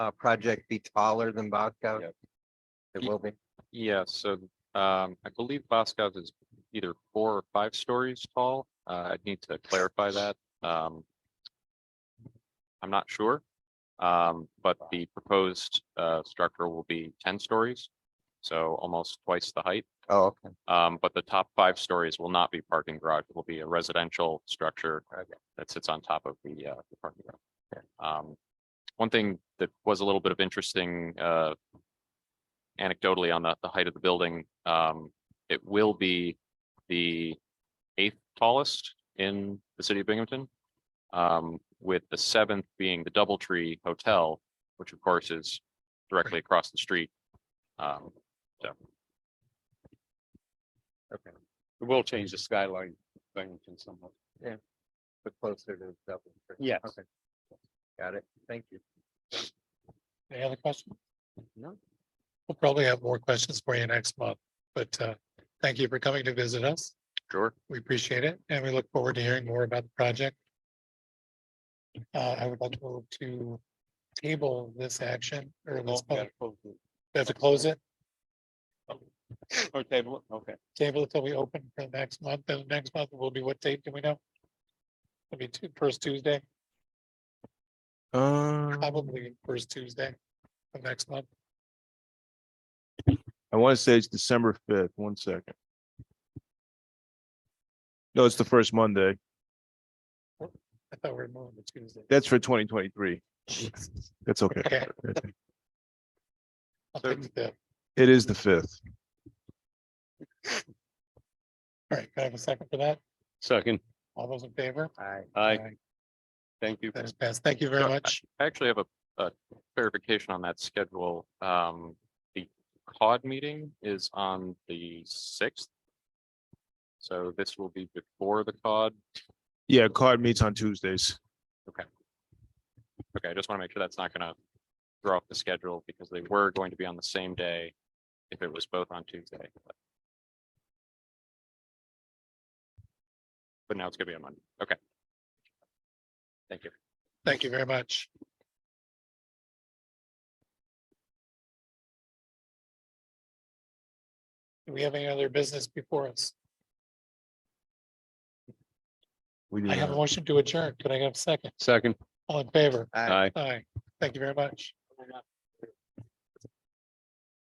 uh, project be taller than Bosco's? Yep. It will be. Yeah, so um, I believe Boscov is either four or five stories tall. Uh, I'd need to clarify that. Um, I'm not sure, um, but the proposed uh, structure will be ten stories, so almost twice the height. Oh, okay. Um, but the top five stories will not be parking garage. It will be a residential structure that sits on top of the, uh, the parking garage. Um, one thing that was a little bit of interesting, uh, anecdotally on the, the height of the building, um, it will be the eighth tallest in the city of Binghamton. Um, with the seventh being the Doubletree Hotel, which of course is directly across the street. Um, It will change the skyline thing in somewhat. But closer to double. Yes. Okay. Got it. Thank you. Any other questions? No. We'll probably have more questions for you next month, but uh, thank you for coming to visit us. sure. We appreciate it and we look forward to hearing more about the project. Uh, I would like to move to table this action or this, Okay, public- we have to close it, well, okay. table it till we open for next month. And next month will be what date? Do we know? It'll be two, first Tuesday, Um, probably first Tuesday of next month. I want to say it's December fifth, one second. No, it's the first Monday. I thought we were moving to Tuesday. That's for twenty twenty-three. That's okay. Okay. I'll take the fifth. It is the fifth. All right, can I have a second for that? Second, All those in favor? Aye. I Aye. thank you. That is passed. Thank you very Sure. much. I actually have a, a clarification on that schedule. Um, the COD meeting is on the sixth. So this will be before the COD. Yeah, card meets on Tuesdays. Okay, I just want to make sure that's not gonna throw off the schedule because they were going to be on the same day if it was both on Tuesday. but- But now it's gonna be on Monday. Okay. Thank you. Thank you very much. Do we have any other business before us? We do I have a that. motion to adjourn. Could I have a second? Second, All in favor? Aye. aye. Aye. Thank you very much.